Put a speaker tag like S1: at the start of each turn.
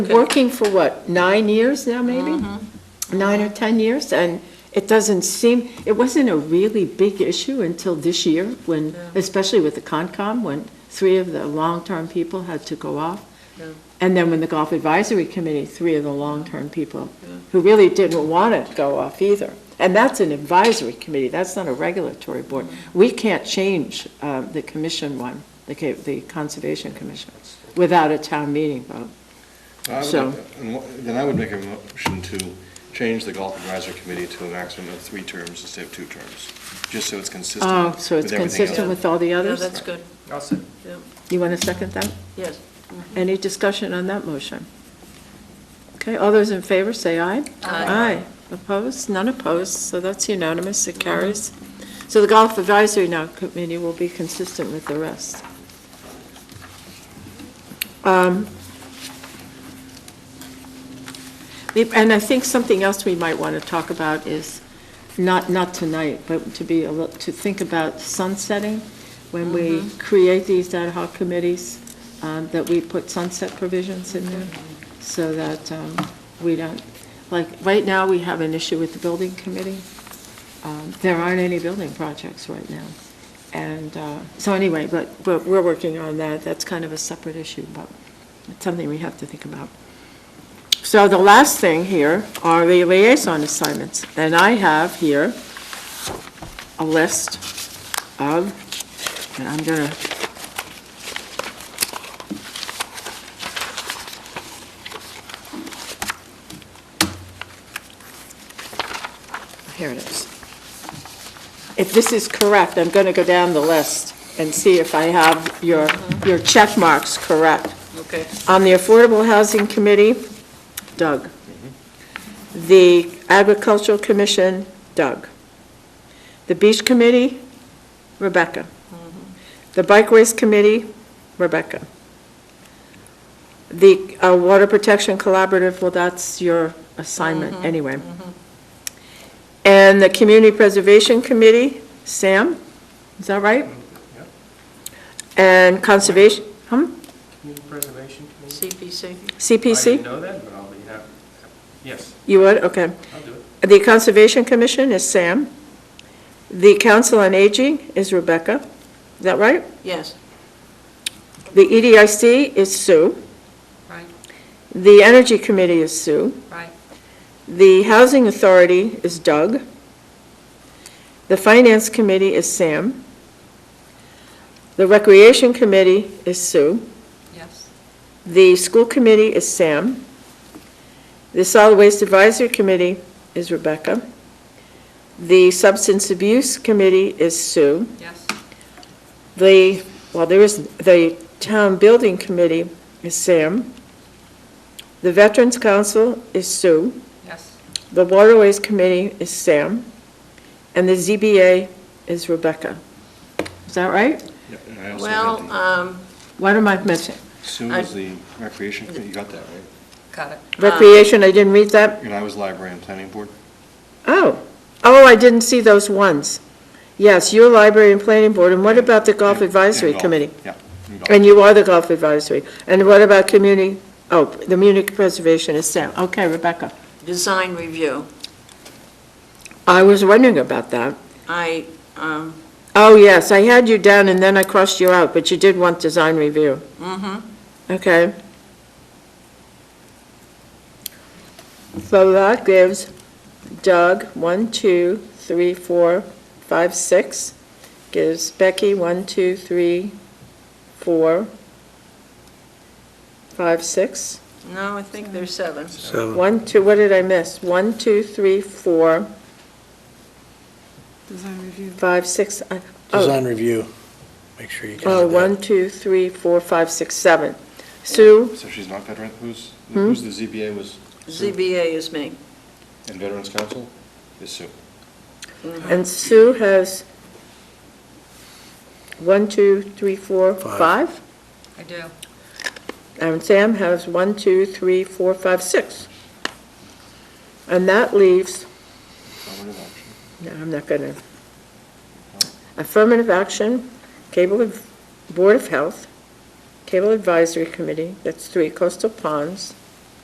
S1: Working for what, nine years now, maybe? Nine or 10 years, and it doesn't seem, it wasn't a really big issue until this year, when, especially with the Concom, when three of the long-term people had to go off. And then when the Golf Advisory Committee, three of the long-term people, who really didn't want to go off either. And that's an advisory committee, that's not a regulatory board. We can't change uh, the commission one, the ca- the Conservation Commission, without a town meeting vote.
S2: I would
S1: So-
S2: like- and wha- Then I would make a motion to change the Golf Advisory Committee to a maximum of three terms instead of two terms, just so it's consistent with
S1: Oh,
S2: everything else.
S1: so it's consistent with all the
S3: Yeah,
S1: others?
S3: that's good,
S4: I'll say,
S3: yeah,
S1: You want to second that?
S3: yes.
S1: Any discussion on that motion? Okay, all those in favor, say aye.
S3: Aye.
S1: Opposed? None opposed, so that's unanimous, it carries. So the Golf Advisory now Committee will be consistent with the rest. Um, the- And I think something else we might want to talk about is, not, not tonight, but to be, a lit- to think about sunsetting, when we create these ad hoc committees, um, that we put sunset provisions in there, so that um, we don't, like, right now, we have an issue with the building committee. Um, There aren't any building projects right now. And, uh, so anyway, but, but we're working on that, that's kind of a separate issue, but it's something we have to think about. So the last thing here are the liaison assignments, and I have here a list of, and I'm gonna, here it is. If this is correct, I'm gonna go down the list and see if I have your, your check marks correct.
S3: Okay,
S1: On the Affordable Housing Committee, Doug. The Agricultural Commission, Doug. The Beach Committee, Rebecca. The Bike Ways Committee, Rebecca. The uh, Water Protection Collaborative, well, that's your assignment anyway. And the Community Preservation Committee, Sam, is that right?
S4: Yep.
S1: And Conservation, hmm,
S4: Community Preservation Committee?
S3: CPC,
S1: CPC?
S4: I didn't know that, but I'll be happy. Yes,
S1: You would, okay.
S4: I'll do it.
S1: The Conservation Commission is Sam. The Council on Aging is Rebecca. Is that right?
S3: yes.
S1: The E EDIC is Sue.
S3: Right,
S1: The Energy Committee is Sue.
S3: right.
S1: The Housing Authority is Doug. The Finance Committee is Sam. The Recreation Committee is Sue.
S3: Yes.
S1: The School Committee is Sam. The Solid Waste Advisory Committee is Rebecca. The Substance Abuse Committee is Sue.
S3: Yes.
S1: The, well, there is, the Town Building Committee is Sam. The Veterans Council is Sue.
S3: Yes.
S1: The Waterways Committee is Sam. And the ZBA is Rebecca. Is that right?
S2: Yeah, and I also
S3: Well,
S2: had the-
S3: um,
S1: What am I missing?
S2: Sue
S3: I-
S2: was the Recreation Committee, you got that, right?
S3: got it.
S1: Recreation, I didn't read that.
S2: And I was Library and Planning Board.
S1: Oh, oh, I didn't see those ones. Yes, your library and planning board, and what about the golf
S2: And- and
S1: advisory
S2: golf,
S1: committee?
S2: Yeah. and golf.
S1: And you are the golf advisory. And what about community, oh, the Munich Preservation is Sam. Okay, Rebecca.
S3: Design review,
S1: I was wondering about that.
S3: I, um,
S1: Oh, yes, I had you down and then I crossed you out, but you did want design review.
S3: mhm.
S1: Okay. So that gives Doug one, two, three, four, five, six. Gives Becky one, two, three, four, five, six.
S3: no, I think there's seven.
S1: One, two, what did I miss? One, two, three, four,
S5: Design review.
S1: five, six. I-
S6: Design review, make sure you
S1: Oh,
S6: got
S1: one,
S6: that.
S1: two, three, four, five, six, seven. Sue,
S2: So she's not veteran, who's,
S1: Hmm?
S2: who's the ZBA was,
S3: ZBA is me.
S2: and Veterans Council is Sue.
S1: and Sue has one, two, three, four,
S6: Five.
S1: five?
S3: I do.
S1: And Sam has one, two, three, four, five, six. And that leaves,
S2: Affirmative action.
S1: no, I'm not gonna, affirmative action, cable, Ad- Board of Health, Cable Advisory Committee, that's three, Coastal Ponds,